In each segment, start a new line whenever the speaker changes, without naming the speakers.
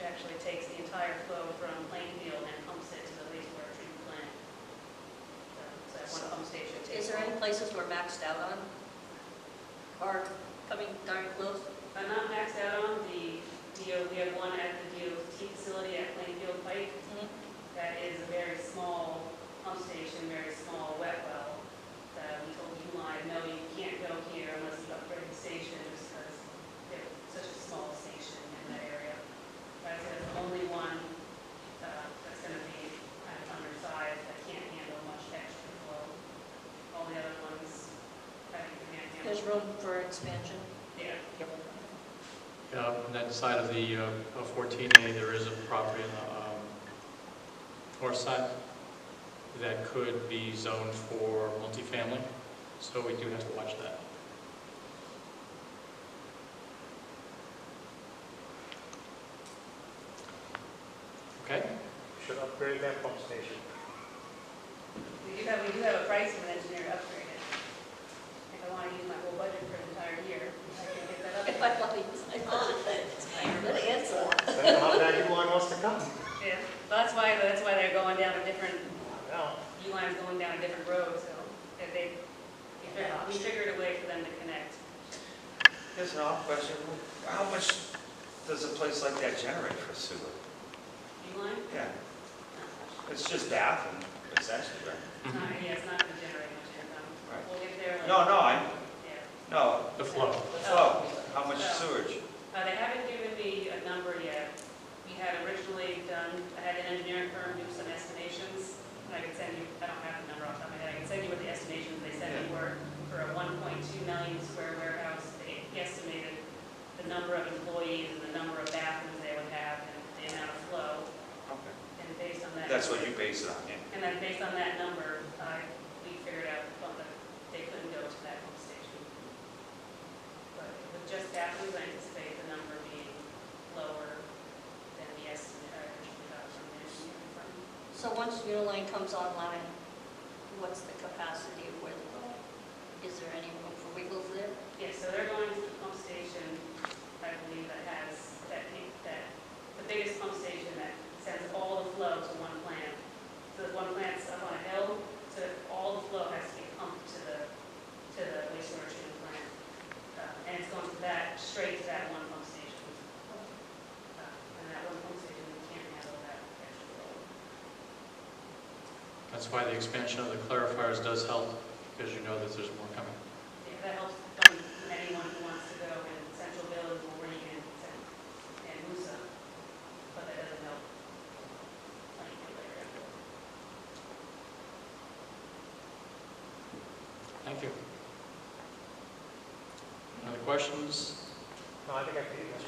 uh, water flow from Plainfield and pumps it to the wastewater treatment plant. So it's that one pump station.
Is there any places we're maxed out on? Or coming darn close?
I'm not maxed out on the DO, we have one at the DOT facility at Plainfield Pike.
Mm-hmm.
that is a very small pump station, very small wet well, that we told Uline, no, you can't go here unless you upgrade the station, just because they're such a small station in that area. That's the only one uh, that's going to be kind of undersized, that can't handle much extra flow. All the other ones, I think, can
There's
handle.
room for expansion.
Yeah.
Yeah, on that side of the uh, of 14A, there is a property on the um, north side that could be zoned for multifamily, so we do have to watch that. Okay?
Should upgrade that pump station.
We do have, we do have a price for an engineer to upgrade it. If I want to use my whole budget for an entire year, I can get that
If
upgraded.
I want to use my budget, I'm gonna answer.
Depends on how bad Uline wants to come.
Yeah, well, that's why, that's why they're going down a different,
Now,
Uline's going down a different road, so that they, we figured a way for them to connect.
Here's an off question. How much does a place like that generate for sewer?
Uline?
Yeah, it's just bathroom, essentially, right?
It's not, yeah, it's not gonna generate much income.
Right.
We'll get there like.
No, no, I,
Yeah.
no,
The flow.
the flow, how much sewage?
Uh, they haven't given me a number yet. We had originally done, I had an engineering firm do some estimations, and I could send you, I don't have the number off the top of my head, I can send you what the estimations they said they were for a one point two million square warehouse. They estimated the number of employees and the number of bathrooms they would have and the amount of flow,
Okay.
and based on that.
That's what you base it on, yeah?
And then based on that number, I, we figured out well, that they couldn't go to that pump station. But with just that, we would anticipate the number being lower than the estimate I originally got from the engineering firm.
So once Uniline comes online, what's the capacity of where they're going? Is there any room for wiggles there?
Yeah, so they're going to the pump station, I believe, that has, that, that, the biggest pump station that sends all the flow to one plant. So the one plant's up on a hill, so all the flow has to be pumped to the, to the wastewater treatment plant. Uh, And it's going to that, straight to that one pump station. Uh, And that one pump station, we can't handle that extra flow.
That's why the expansion of the clarifiers does help, because you know that there's more coming.
If that helps um, anyone who wants to go in Central Village or Reagan and- and Musa, but that doesn't help. Plainfield area.
Thank you. Other questions?
no, I think I can do this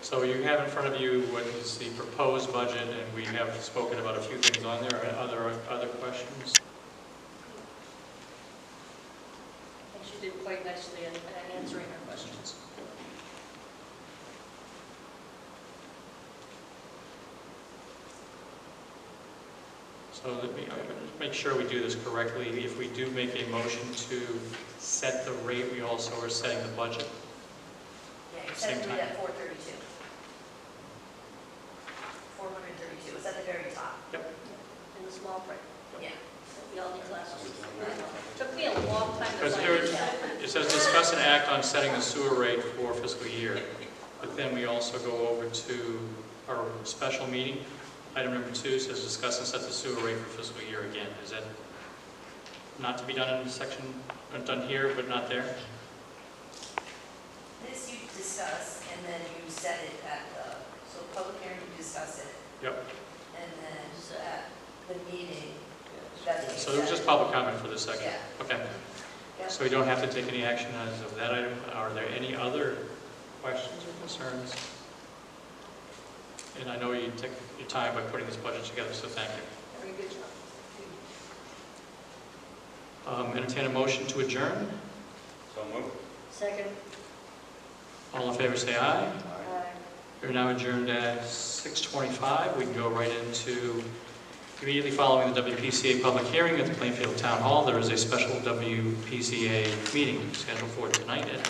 So you have in front of you what is the proposed budget, and we have spoken about a few things on there. Are there other questions?
I think she did quite nicely in
uh,
in answering her questions.
So let me, I'm gonna just make sure we do this correctly. If we do make a motion to set the rate, we also are setting the budget.
Yeah, it
Same
says to
time.
be at four thirty-two. Four hundred thirty-two, it's at the very top.
In the small print.
Yeah.
We all need glasses. Took me a long time to
Because
find
there is-
it out.
It says discuss and act on setting the sewer rate for fiscal year. But then we also go over to our special meeting. Item number two says discuss and set the sewer rate for fiscal year again. Is that not to be done in section, uh, done here, but not there?
This you discuss, and then you set it at the, so public hearing, you discuss it,
Yep.
and then at the meeting, that's. what you
So it was
set.
just public comment for the second.
Yeah.
Okay.
Yeah.
So we don't have to take any action as of that item. Are there any other questions or concerns? And I know you took your time by putting this budget together, so thank you.
Very good job.
Um, Entertain a motion to adjourn.
So move.
Second.
All in favor, say aye.
uh,
We're now adjourned at 6:25. We can go right into, immediately following the WPCA public hearing at the Plainfield Town Hall, there is a special WPCA meeting scheduled for tonight at